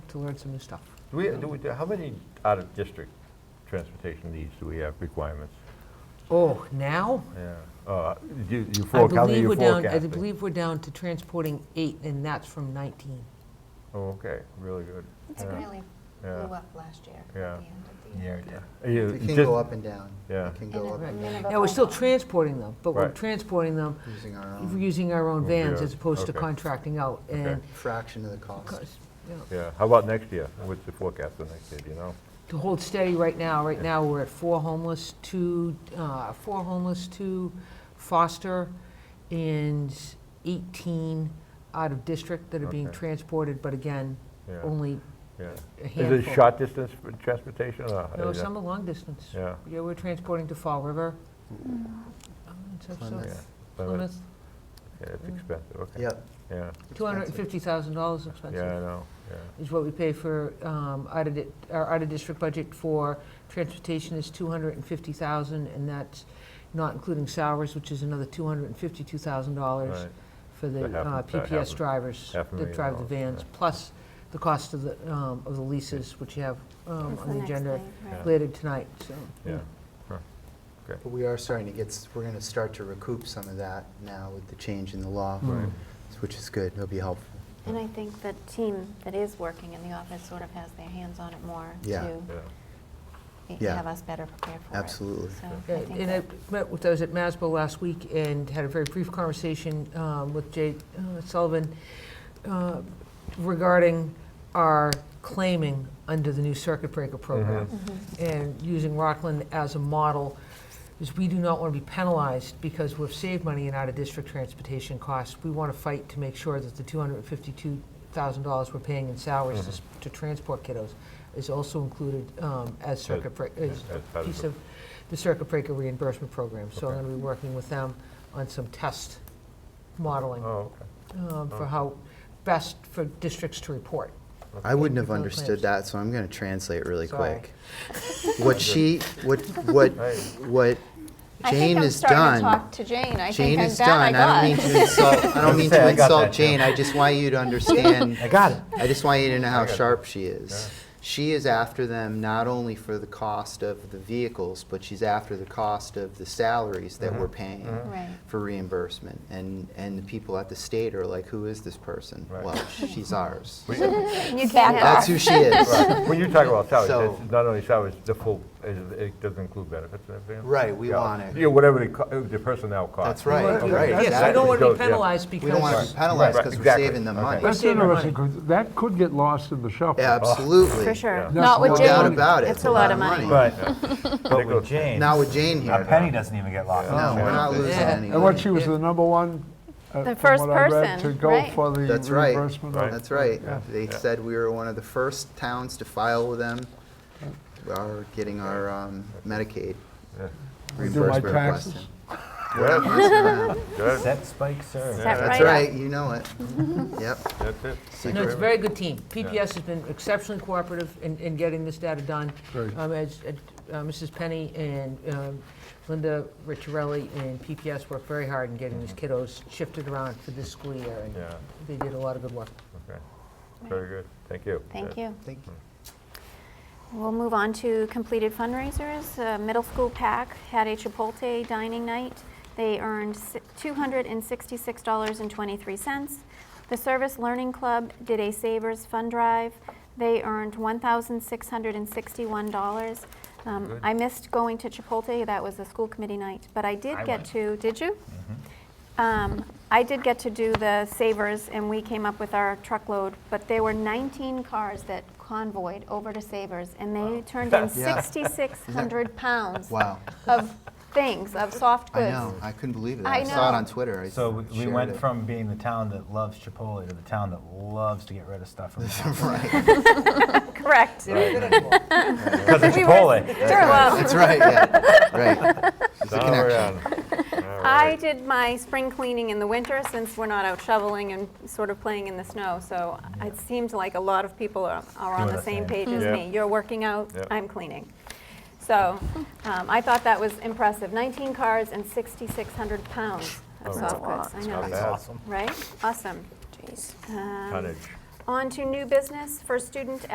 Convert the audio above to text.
to learn some new stuff. Do we, do we, how many out-of-district transportation needs do we have requirements? Oh, now? Yeah. Uh, You, you I forecast, how believe many you we're down. I forecasting? believe we're down to transporting eight, and that's from 19. Oh, okay, really good. It's Yeah. really Yeah. blew up last year. at Yeah. the end of the year. Uh, you- It can just- go up and down. Yeah. It can And go a up and down minimum Now, we're still of- transporting them, but we're Right. transporting them using our If We're own using our own Oh, vans yeah. as opposed to Okay. contracting out, and, fraction of the cost. cause, you know, Yeah, how about next year? What's the forecast for next year, do you know? to hold steady right now, right now, we're at four homeless, two, uh, four homeless, two foster, and eighteen out of district that are being Okay. transported, but again, Yeah, only yeah. a Oh, handful. Is it short distance for transportation or? No, is it- some are long distance. Yeah. Yeah, we're transporting to Fall River. um, and so- so- Plymouth. Yeah, Plymouth, Yeah, it's Mm. expensive, okay. Yep. Yeah, two hundred and fifty thousand dollars expensive. yeah, I know, yeah. is what we pay for, um, out of, di- our out-of-district budget for transportation is 250,000, and that's not including salaries, which is another $252,000 Right. for the That uh, happens- that happens. PPS drivers Half a that million drive the dollars, vans, yeah. plus the cost of the, um, of the leases, which you have um, That's on the next agenda thing, right. Yeah. later tonight, so. Yeah, But we are starting to get, s- we're going to start to recoup some of that now with the change in the law, Right. Mm. which is good. It'll be helpful. And I think the team that is working in the office sort of has their hands on it more Yeah. to yeah. be- Yeah. have us better prepared for it. Absolutely. So Yeah, I think And I that- met with, I was at MASBO last week and had a very brief conversation um, with Jay uh, Sullivan uh, regarding our claiming under the new circuit breaker program Mm-hmm. and using Rockland as a model, is we do not want to be penalized because we've saved money in out-of-district transportation costs. We want to fight to make sure that the $252,000 we're paying in salaries to s- to transport kiddos is also included um, as circuit, break- as as a part of piece the- of the circuit breaker reimbursement program. So I'm Okay. going to be working with them on some test modeling Oh, okay. um, for Oh. how best for districts to report. I Thank wouldn't you have for the understood claims. that, so I'm going to translate really Sorry. quick. What she, what, what, Hey. what I think Jane I'm has starting to done. talk to Jane. I Jane think I'm is done, done. I I don't mean got it. to insult, I don't mean Say, to I got insult that, yeah. Jane. I just want you to understand. I got it. I just want you to know I how got sharp she is. Yeah. She is after them not only for the cost of the vehicles, but she's after the cost of the salaries that Mm-hmm. we're paying Right. for reimbursement. And, and the people at the state are like, who is this person? Right. Well, she's ours. You can't have That's who she is. When you talk about salaries, So- it's not only salaries, the full, it it doesn't include benefits and everything? Right, we Yeah. want it. Yeah, whatever the co- uh, the personnel costs. That's right, Okay. right, Yes, we exactly. don't want to be Goes, yeah. penalized We don't want because to be penalized Right, because we're exactly. saving them Okay. money. That's Save our money. interesting, because that could get lost in the shuffle. Absolutely. for sure. Yeah. Not with No That's Jane. doubt about it. It's a lot of money. But, but Particular- with Jane, Now with Jane a here, penny doesn't even get locked no, up. we're not losing Yeah. any And what, money. she was the number one? uh, The from first what I read, person, To right. go for the That's right. reimbursement. of- That's right. Yeah. They said we were one of the first towns to file with them, our, getting our um, Medicaid Yeah. We do my reimbursement request. taxes. Good, in. good, Set, spike, serve. Set Yeah. That's up. right, you know it. Yep. that's it. Thank No, you it's a very very good team. PPS has been exceptionally cooperative in, in getting this data done. Great. Um, as, uh, Mrs. Penny and um, Linda Ricciarelli and PPS worked very hard in getting these kiddos shifted around for this school year, and much. Yeah, they did a lot of good work. okay, very good, thank you. Thank Yeah. you. Thank you. We'll move on to completed fundraisers. Uh, Middle school pack had a Chipotle dining night. They earned si- $266.23. The Service Learning Club did a Savers Fund Drive. They earned $1,661. Um, Good. I missed going to Chipotle, that was a school committee night, but I did I get to, went. did you? Um, I did get to do the Savers, and we came up with our truckload, but there were 19 cars that convoyed over to Savers, and they turned in Yeah. 6,600 pounds Wow. of things, of soft goods. I know. I couldn't believe it. I I saw it know. on Twitter. I So we- we shared went it. from being the town that loves Chipotle to the town that loves to get rid of stuff from the town. Right. Correct. Because of Chipotle. Well, That's right, yeah, right. It's a All connection. around. All I right. did my spring cleaning in the winter since we're not out shoveling and sort of playing in the snow, so it seems like a lot of people are are on Doing the the same same. page as Yeah. me. You're working out, Yeah. I'm cleaning. So um, I thought that was impressive. 19 cars and 6,600 pounds of Oh, soft wow. goods. I know, bad. That's awesome. right? Awesome. Jeez. Um, Tonnage, On to new business for student